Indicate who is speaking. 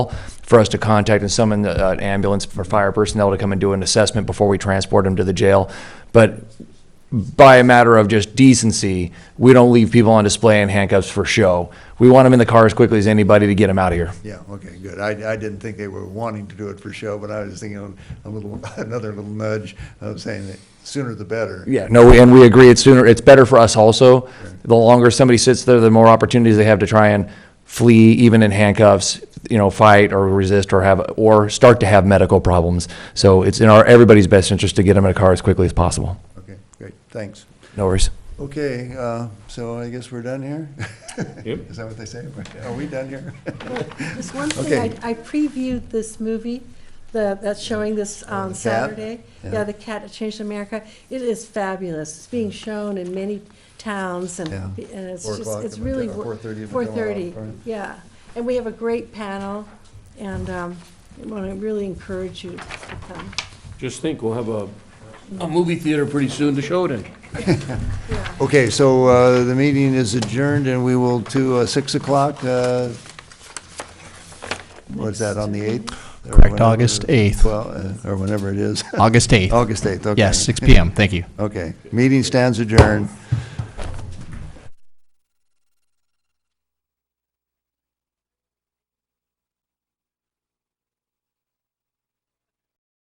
Speaker 1: for us to contact and summon uh, an ambulance for fire personnel to come and do an assessment before we transport them to the jail. But by a matter of just decency, we don't leave people on display in handcuffs for show. We want them in the car as quickly as anybody to get them out of here.
Speaker 2: Yeah, okay, good. I, I didn't think they were wanting to do it for show, but I was thinking of a little, another little nudge of saying that sooner the better.
Speaker 1: Yeah, no, we- and we agree, it's sooner, it's better for us also. The longer somebody sits there, the more opportunities they have to try and flee, even in handcuffs, you know, fight or resist or have, or start to have medical problems. So it's in our, everybody's best interest to get them in a car as quickly as possible.
Speaker 2: Okay, great, thanks.
Speaker 1: No worries.
Speaker 2: Okay, uh, so I guess we're done here? Is that what they say? Are we done here?
Speaker 3: There's one
Speaker 2: Okay.
Speaker 3: thing, I I previewed this movie, the, that's showing this on
Speaker 2: Oh, the cat?
Speaker 3: Saturday.
Speaker 2: Yeah.
Speaker 3: Yeah, The Cat That Changed America. It is fabulous. It's being shown in many towns and,
Speaker 2: Yeah.
Speaker 3: and it's
Speaker 2: Four o'clock
Speaker 3: just, it's
Speaker 2: if we go-
Speaker 3: really.
Speaker 2: or
Speaker 3: wor-
Speaker 2: 4:30 if we go
Speaker 3: 4:30,
Speaker 2: out, right?
Speaker 3: yeah. And we have a great panel and um, I want to really encourage you to come.
Speaker 4: Just think, we'll have a, a movie theater pretty soon to show it in.
Speaker 2: Okay, so, uh, the meeting is adjourned and we will to, uh, six o'clock, uh, what's that, on the eighth?
Speaker 5: Correct, August 8th.
Speaker 2: Well, uh, or whenever it is.
Speaker 5: August 8th.
Speaker 2: August eighth, okay.
Speaker 5: Yes, 6 PM. Thank you.
Speaker 2: Okay, meeting stands adjourned.